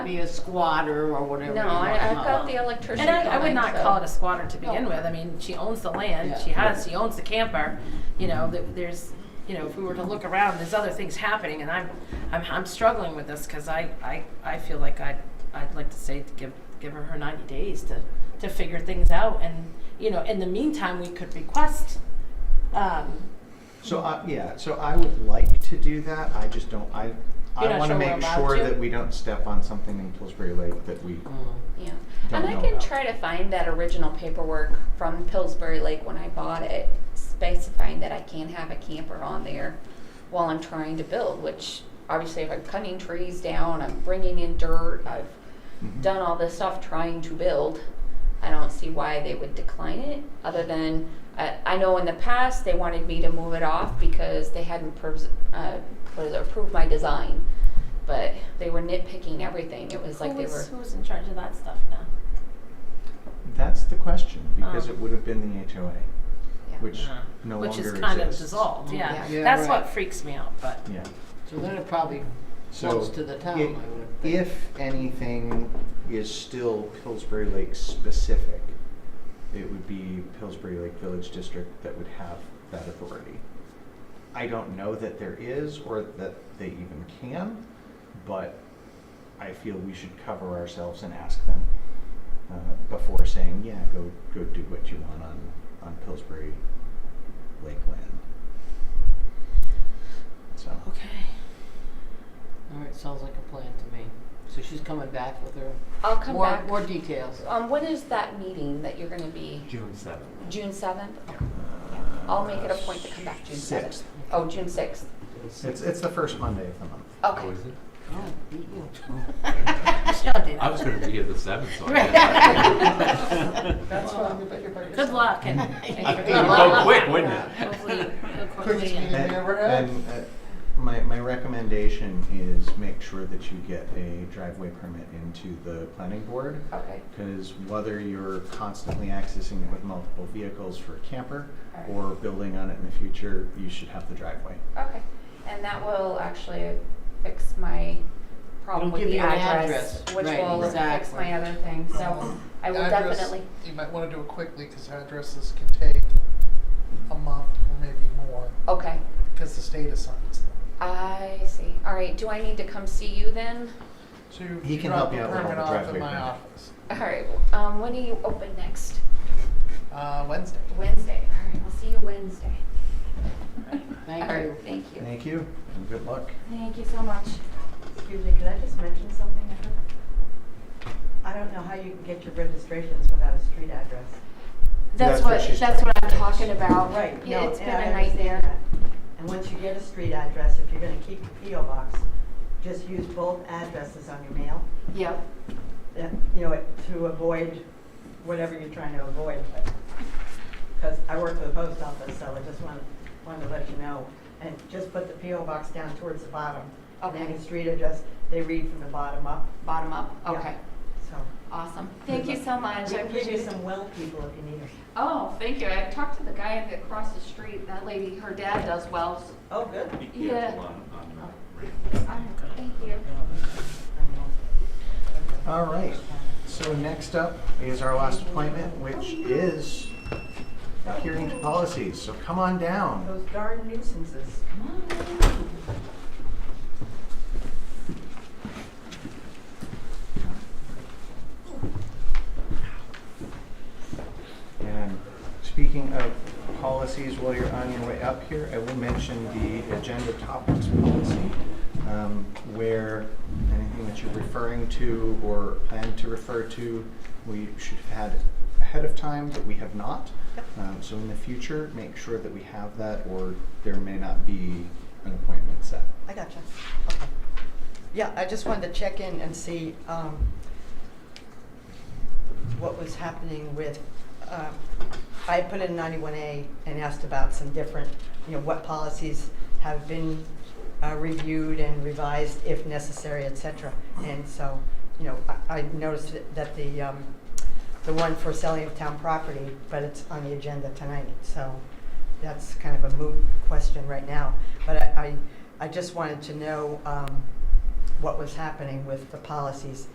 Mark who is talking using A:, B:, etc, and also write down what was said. A: be a squatter or whatever.
B: No,
A: you wanna
B: I, I've
A: call
B: got
A: it.
B: the electrician.
C: And I, I
B: coming,
C: would not
B: so-
C: call it a squatter to begin with. I mean, she owns the land.
A: Yeah.
C: She has. She owns the camper. You know, th- there's. You know, if we were to look around, there's other things happening, and I'm, I'm, I'm struggling with this because I, I, I feel like I'd, I'd like to say to give, give her her 90 days to, to figure things out, and you know, in the meantime, we could request. Um,
D: So, I yeah, so I would like to do that, I just don't, I,
C: You're
D: I
C: not
D: wanna
C: sure we're
D: make
C: allowed
D: sure
C: to?
D: that we don't step on something in Pillsbury Lake that we,
A: Mm.
B: Yeah,
D: Don't
B: and I
D: know
B: can
D: about.
B: try to find that original paperwork from Pillsbury Lake when I bought it, specifying that I can't have a camper on there while I'm trying to build, which obviously if I'm cutting trees down, I'm bringing in dirt, I've
D: Mhm.
B: done all this stuff trying to build. I don't see why they would decline it, other than, I, I know in the past, they wanted me to move it off because they hadn't pres- uh, what is it, approved my design. But they were nitpicking everything, it was like they were.
C: who's, who's in charge of that stuff now?
D: that's the question, because
C: Mm. Oh.
D: it would have been the HOA,
B: Yeah.
D: which
C: Yeah.
D: Uh, no longer
C: Which
D: exists.
C: is kind of dissolved. Yeah,
B: Yeah.
C: that's
A: Yeah, right.
C: what freaks me out. But
D: Yeah.
A: So then it probably
D: So
A: floats to the town, I
D: it-
A: would think.
D: If anything is still Pillsbury Lake specific, it would be Pillsbury Lake Village District that would have that authority. I don't know that there is or that they even can, but I feel we should cover ourselves and ask them uh, before saying, yeah, go, go do what you want on, on Pillsbury Lake land. So,
C: okay.
A: All right, sounds like a plan to me. So she's coming back with her
B: I'll come
A: more,
B: back.
A: more details.
B: Um, when is that meeting that you're gonna be?
D: June seventh.
B: June seventh? I'll make it a point to come back June seventh.
D: Sixth.
B: Oh, June sixth.
D: It's, it's the first Monday of the month.
B: Okay.
A: Oh, beat you.
C: Michelle did.
E: I was going to be at the seventh, so I
C: Right.
E: guess.
A: That's fine, you bet your butt
C: Good luck and.
E: It would go quick, wouldn't it?
C: Hopefully, it'll
A: Quickest
C: quickly end.
A: meeting they ever had.
D: And, uh, my, my recommendation is make sure that you get a driveway permit into the planning board.
B: Okay.
D: Because whether you're constantly accessing it with multiple vehicles for a camper
B: Alright.
D: or building on it in the future, you should have the driveway.
B: Okay. And that will actually fix my problem
A: It'll
B: with
A: give
B: the
A: you an
B: address,
A: address.
B: which
A: Right,
B: will fix
A: exactly. Mm-hmm.
B: my other thing. So I will
F: Address,
B: definitely.
F: You might wanna do it quickly, cause addresses can take a month or maybe more,
B: Okay.
F: cause the state assigns them.
B: I see. All right. Do I need to come see you then?
F: So you
D: He
F: you
D: can help
F: drop the
D: you out with all
F: permit
D: the
F: off
D: driveway
F: at my
D: permit.
F: office,
B: All right. Um, when are you open next?
F: uh, Wednesday.
B: Wednesday. All right. I'll see you Wednesday.
A: Thank
B: All right,
A: you.
B: Thank you.
D: Thank you and good luck.
B: Thank you so much.
G: Excuse me, could I just mention something? I heard- I don't know how you can get your registrations without a street address.
B: That's
D: That's what
B: what,
D: she's
B: that's what I'm
D: trying to
B: talking
D: fix.
B: about.
G: no,
B: Yeah, It's been
G: and I
B: a nightmare.
G: understand that. And once you get a street address, if you're gonna keep your PO box, just use both addresses on your mail.
B: Yep.
G: That, you know, it- to avoid whatever you're trying to avoid. Because I work for the post office, so I just wanted, wanted to let you know. And just put the PO box down towards the bottom. And then
B: Okay.
G: the street address, they read from the bottom up,
B: Bottom up.
G: Yeah.
B: Okay.
G: so.
B: Awesome. Thank you so much.
G: We
B: I
G: can give you
B: appreciate it.
G: some well people if you need them.
B: Oh, thank you. I talked to the guy across the street. That lady, her dad does wells.
G: Oh, good.
E: Be
B: Yeah.
E: careful on, on the radio.
B: Um, Thank you.
D: All right, so next up is our last appointment, which is adhering to policies, so come on down.
G: Those darn nuisances.
D: And speaking of policies, while you're on your way up here, I will mention the agenda topics policy, um, where anything that you're referring to or plan to refer to, we should have had ahead of time, but we have not. Um, so in the future, make sure that we have that, or there may not be an appointment set.
G: I gotcha. Okay. Yeah, I just wanted to check in and see um, what was happening with, um, I put in 91A and asked about some different, you know, what policies have been uh, reviewed and revised if necessary, et cetera. And so, you know, I I noticed that the, um, the one for selling of town property, but it's on the agenda tonight, so that's kind of a moot question right now. But I, I I just wanted to know um, what was happening with the policies